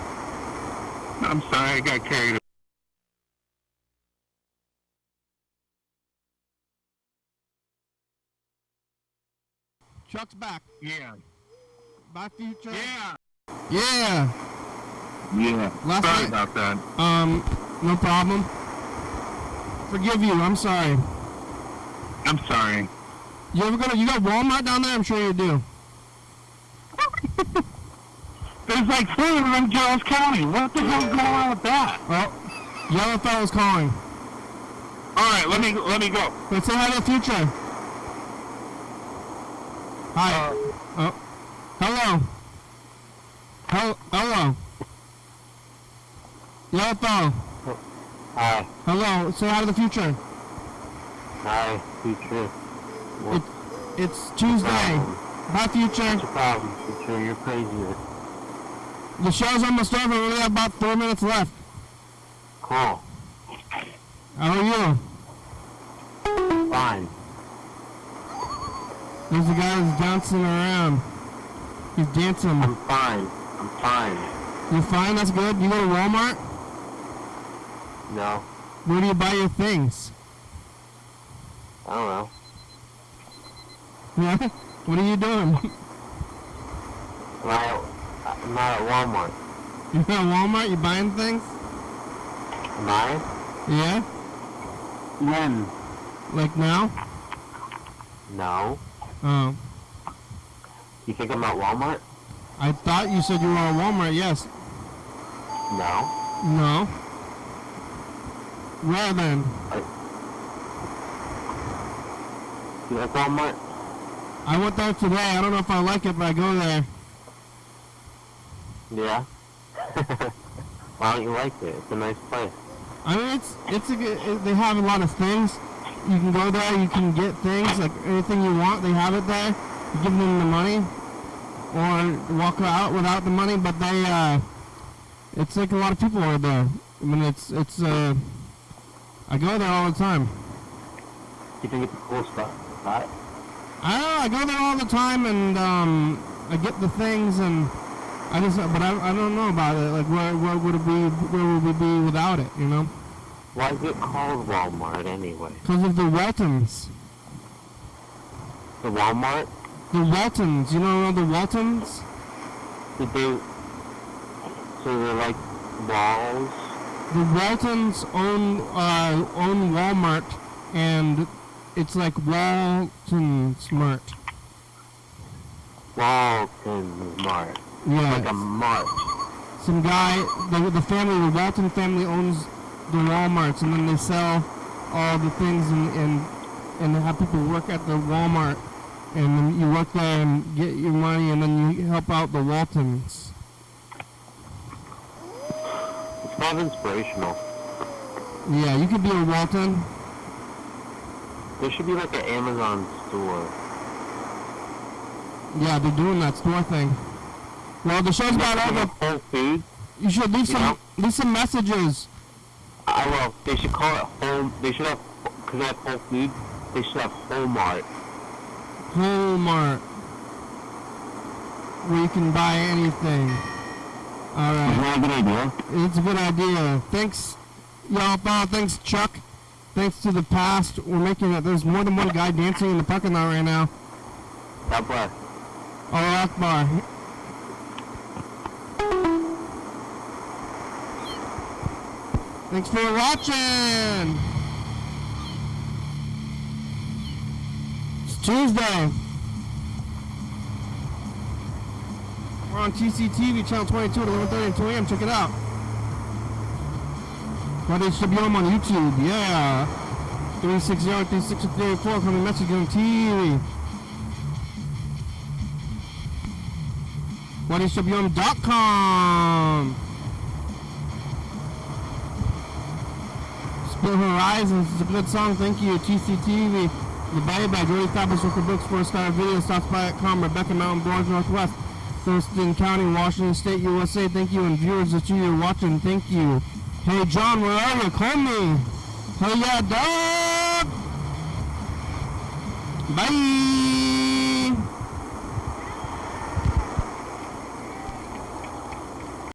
I'm sorry, I got carried Chuck's back. Yeah. My future. Yeah. Yeah. Yeah. Last sorry night- about that. Um, no problem. Forgive you. I'm sorry. I'm sorry. You ever gonna? You got Walmart down there? I'm sure you do. There's like four of them in Giles County. What the hell's going on with that? Oh, yellow fellow's calling. All right, let me let me go. Let's say hi to the future. Hi. oh. Hello. Hel- hello. Yellow fellow. Hi. Hello. Say hi to the future. Hi. Future. It, it's Tuesday. Hi, future. problem, Future? You're crazy. The show's almost over. We only have about four minutes left. Cool. How are you? Fine. There's a guy who's dancing around. He's dancing. fine. I'm fine. You're fine. That's good. You go to Walmart. No. Where do you buy your things? I don't know. Yeah. What are you doing? I'm not at, I'm not at Walmart. You're at Walmart. You buying things? Am I? Yeah. When? Like now? No. Oh. You think I'm at Walmart? I thought you said you were at Walmart. Yes. No. No. Where then? You like Walmart? I went there today. I don't know if I like it, but I go there. Yeah. Why don't you like it? It's a nice place. I mean, it's it's a good. It, they have a lot of things. You can go there. You can get things like anything you want. They have it there. You give them the money, or walk out without the money. But they, uh, it's like a lot of people are there. I mean, it's it's. Uh, I go there all the time. You think it's a cool spot? Right? I don't know, I go there all the time, and um, I get the things, and I just. But I, I don't know about it. Like, where where would it be? Where would we be without it? You know, Why is it called Walmart anyway? because of the Waltons. The Walmart? The Waltons, you know the Waltons? Did they... So they're like walls? The Waltons own uh, own Walmart, and it's like Walton Smart. Walton Mart. Like a Yeah, mart. some guy, the, the family, the Walton family owns the WalMarts, and then they sell all the things and and and have people work at the Walmart, and then you work there and get your money, and then you help out the Waltons. It's kind of inspirational. Yeah, you could be a Walton. There should be like an Amazon store. Yeah, they're doing that store thing. Well, the show's about Like over. a Whole Foods? You should leave You some know? leave some messages. I will. They should call it Home. They should have, because they have Whole Foods, they should have Walmart. Walmart, where you can buy anything. All right, that a good idea? it's a good idea. Thanks, y'all. Follow. Thanks, Chuck. Thanks to the past, we're making it. There's more than one guy dancing in the parking lot right now. God bless. Allah Akbar. Thanks for watching. It's Tuesday. We're on TCTV channel 22 at 11:30 and 2 a.m. Check it out. But it should be on YouTube. Yeah. 360 360 384 coming message on TV. WhatIsShabium.com. Split Horizons is a good song. Thank you. TCTV. The Bay by Jody Fabulous Record Books, Four Star Video, Southspy.com, Rebecca Mountain, Barnes, Northwest, Thurston County, Washington State, USA. Thank you. And viewers that you are watching, thank you. Hey, John, where are you? Call me. Hey, yeah, dog. Bye.